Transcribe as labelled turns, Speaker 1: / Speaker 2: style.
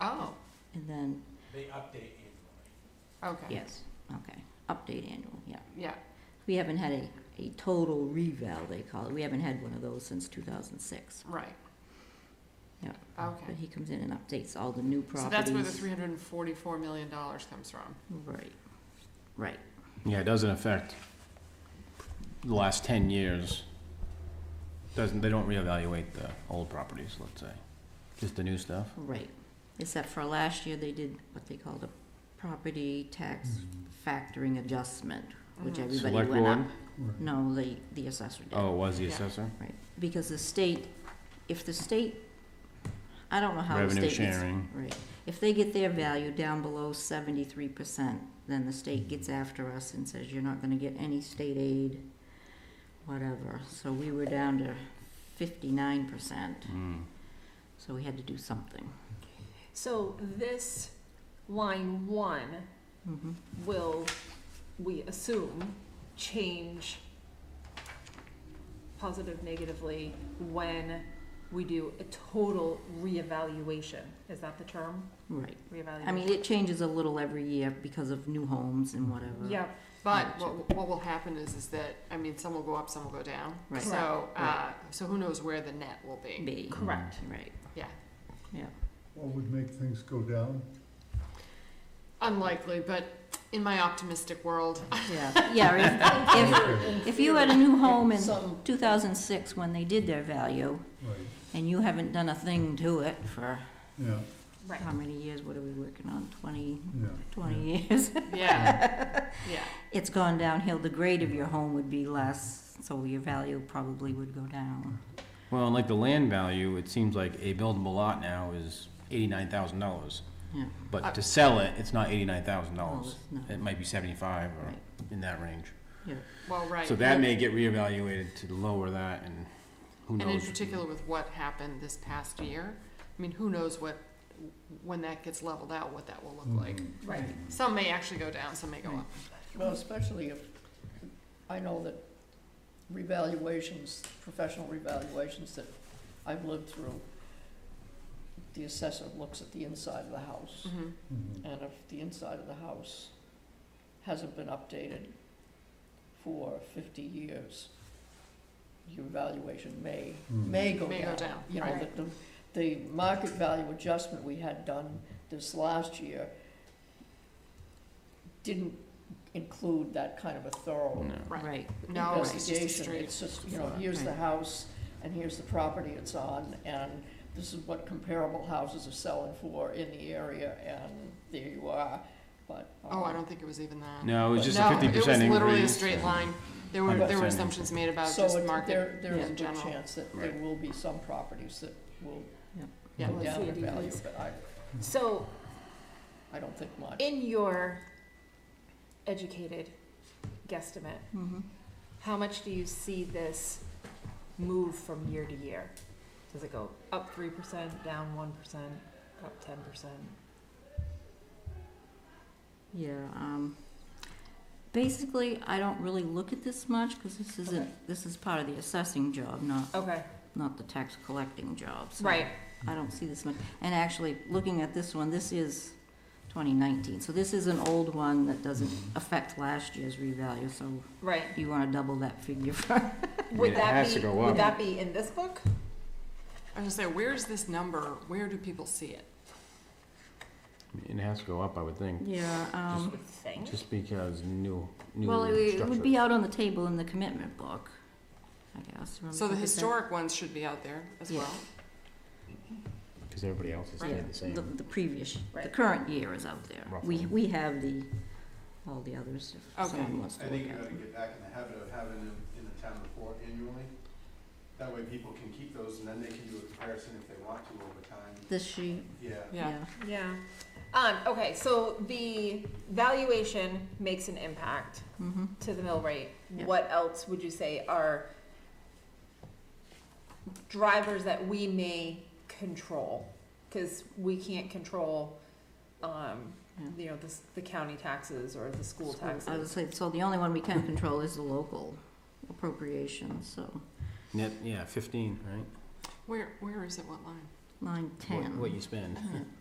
Speaker 1: Oh,
Speaker 2: And then,
Speaker 3: They update annually.
Speaker 1: Okay,
Speaker 2: yes, okay, update annual, yeah.
Speaker 1: yeah,
Speaker 2: We haven't had a, a total reval, they call it. We haven't had one of those since two thousand six.
Speaker 1: right.
Speaker 2: Yeah. But
Speaker 1: Okay,
Speaker 2: he comes in and updates all the new properties.
Speaker 1: so that's where the three hundred and forty-four million dollars comes from.
Speaker 2: Right, right.
Speaker 4: Yeah, it doesn't affect the last ten years. Doesn't, they don't reevaluate the old properties, let's say, just the new stuff.
Speaker 2: Right, except for last year, they did what they called a property tax factoring adjustment, which
Speaker 1: Mhm.
Speaker 2: everybody
Speaker 4: Mm-hmm. Select
Speaker 2: went up.
Speaker 4: board,
Speaker 2: No, the, the assessor did.
Speaker 4: oh, it was the
Speaker 1: Yeah.
Speaker 4: assessor?
Speaker 2: Right, because the state, if the state, I don't know how the state
Speaker 4: Revenue
Speaker 2: gets.
Speaker 4: sharing,
Speaker 2: Right, if they get their value down below seventy-three percent, then the state gets after us and says, you're not gonna get any state aid, whatever, so we were down to fifty-nine percent,
Speaker 4: mm,
Speaker 2: so we had to do something.
Speaker 5: So this line one Mm-hmm.
Speaker 2: Mhm.
Speaker 5: will, we assume, change positive, negatively, when we do a total reevaluation. Is that the term?
Speaker 2: Right,
Speaker 5: Reevaluation?
Speaker 2: I mean, it changes a little every year because of new homes and whatever.
Speaker 5: Yeah,
Speaker 1: But what, what will happen is, is that, I mean, some will go up, some will go down.
Speaker 2: Right.
Speaker 1: So, uh,
Speaker 2: Right.
Speaker 1: so who knows where the net will be?
Speaker 2: Be,
Speaker 5: correct.
Speaker 2: right,
Speaker 1: Yeah,
Speaker 6: What would make things go down?
Speaker 1: unlikely, but in my optimistic world,
Speaker 2: yeah, yeah, if, if,
Speaker 6: Okay,
Speaker 2: if you had a new home in
Speaker 5: Some-
Speaker 2: two thousand six when they did their value,
Speaker 6: Right,
Speaker 2: and you haven't done a thing to it for
Speaker 6: yeah,
Speaker 5: Right.
Speaker 2: how many years, what are we working on, twenty,
Speaker 6: yeah. yeah.
Speaker 2: twenty years?
Speaker 1: yeah, yeah.
Speaker 2: It's gone downhill, the grade of your home would be less, so your value probably would go down.
Speaker 4: Hmm. well, and like the land value, it seems like a buildable lot now is eighty-nine thousand dollars.
Speaker 2: Yeah.
Speaker 1: Uh,
Speaker 4: But to sell it, it's not eighty-nine thousand
Speaker 2: Well,
Speaker 1: Oh,
Speaker 4: dollars,
Speaker 2: it's not-
Speaker 4: it might be seventy-five or
Speaker 2: Right.
Speaker 4: in that range.
Speaker 6: Mm.
Speaker 2: Yeah,
Speaker 1: Well, right.
Speaker 4: So that may get reevaluated to lower that and who knows?
Speaker 1: And in particular with what happened this past year, I mean, who knows what, when that gets leveled out, what that will
Speaker 4: Mm-hmm.
Speaker 1: look like.
Speaker 6: Mhm.
Speaker 5: Right.
Speaker 1: Some may actually go down, some may go up.
Speaker 7: Well, especially if, I know that revaluations, professional revaluations that I've lived through, the assessor looks at the inside of the house,
Speaker 1: Mhm.
Speaker 6: Mhm.
Speaker 7: and if the inside of the house hasn't been updated for fifty years, your valuation may,
Speaker 2: Mm-hmm.
Speaker 7: may go down.
Speaker 1: May go down,
Speaker 7: You know,
Speaker 1: right.
Speaker 7: the, the, the market value adjustment we had done this last year didn't include that kind of a thorough
Speaker 4: No.
Speaker 1: Right.
Speaker 2: right,
Speaker 1: No, it's just a
Speaker 7: investigation.
Speaker 1: straight.
Speaker 7: It's just, you know, here's the
Speaker 2: Right.
Speaker 7: house, and here's the property it's on, and this is what comparable houses are selling for in the area, and there you are, but.
Speaker 1: Oh, I
Speaker 7: um,
Speaker 1: don't think it was even that.
Speaker 4: No, it was just a
Speaker 1: No,
Speaker 4: fifty percent increase.
Speaker 1: It was literally a straight line. There were, there were
Speaker 4: 100%
Speaker 1: assumptions made about
Speaker 7: So
Speaker 1: just
Speaker 7: it-
Speaker 1: market.
Speaker 7: there, there is a
Speaker 1: in
Speaker 7: good
Speaker 1: general.
Speaker 7: chance that there will be some properties that will
Speaker 1: Yeah.
Speaker 7: go down
Speaker 5: We'll
Speaker 7: in
Speaker 5: see a
Speaker 7: value,
Speaker 5: decrease.
Speaker 7: but I,
Speaker 5: So
Speaker 7: I don't think much.
Speaker 5: in your educated guesstimate,
Speaker 2: mhm.
Speaker 5: how much do you see this move from year to year? Does it go up three percent, down one percent, up ten percent?
Speaker 2: Yeah, um, basically, I don't really look at this much, cause this
Speaker 5: Okay.
Speaker 2: isn't, this is part of the assessing job, not,
Speaker 5: Okay,
Speaker 2: not the tax collecting job, so.
Speaker 5: right,
Speaker 2: I don't see this much. And actually, looking at this one, this is 2019, so this is an old one that doesn't affect last year's revalue, so
Speaker 5: right.
Speaker 2: you want to double that figure for,
Speaker 5: Would
Speaker 4: it
Speaker 5: that
Speaker 4: has
Speaker 5: be,
Speaker 4: to go
Speaker 5: would
Speaker 4: up.
Speaker 5: that be in this book?
Speaker 1: I was gonna say, where's this number? Where do people see it?
Speaker 4: It has to go up, I would think,
Speaker 2: yeah, um,
Speaker 5: Would think.
Speaker 4: just because new, new
Speaker 2: well, it it would be
Speaker 4: structure.
Speaker 2: out on the table in the commitment book, I guess. Remember,
Speaker 1: So the
Speaker 2: look at that.
Speaker 1: historic ones should be out there as
Speaker 2: Yeah.
Speaker 1: well.
Speaker 4: Because everybody else has
Speaker 2: Yeah,
Speaker 4: stayed the
Speaker 2: The,
Speaker 4: same.
Speaker 2: the previous, the
Speaker 5: Right.
Speaker 2: current year is out there. We,
Speaker 4: Roughly.
Speaker 2: we have the, all the others, if
Speaker 1: Okay.
Speaker 2: someone wants to
Speaker 3: I
Speaker 2: look
Speaker 3: think you
Speaker 2: at
Speaker 3: gotta
Speaker 2: them.
Speaker 3: get back in the habit of having them in the town report annually. That way people can keep those and then they can do a comparison if they want to over time.
Speaker 2: This sheet,
Speaker 3: Yeah.
Speaker 1: Yeah.
Speaker 2: yeah,
Speaker 5: Yeah. Um, okay, so the valuation makes an impact
Speaker 2: mm-hmm.
Speaker 5: to the mill rate.
Speaker 2: Yeah.
Speaker 5: What else would you say are drivers that we may control? Cause we can't control, um,
Speaker 2: Yeah.
Speaker 5: you know, the, s- the county taxes or the school
Speaker 2: So, I would
Speaker 5: taxes.
Speaker 2: say, so the only one we can control is the local appropriations, so
Speaker 4: Net, yeah, fifteen, right?
Speaker 1: Where, where is it? What line?
Speaker 2: line
Speaker 4: What-
Speaker 2: ten. Hmm.
Speaker 4: What you spend.
Speaker 2: Yeah.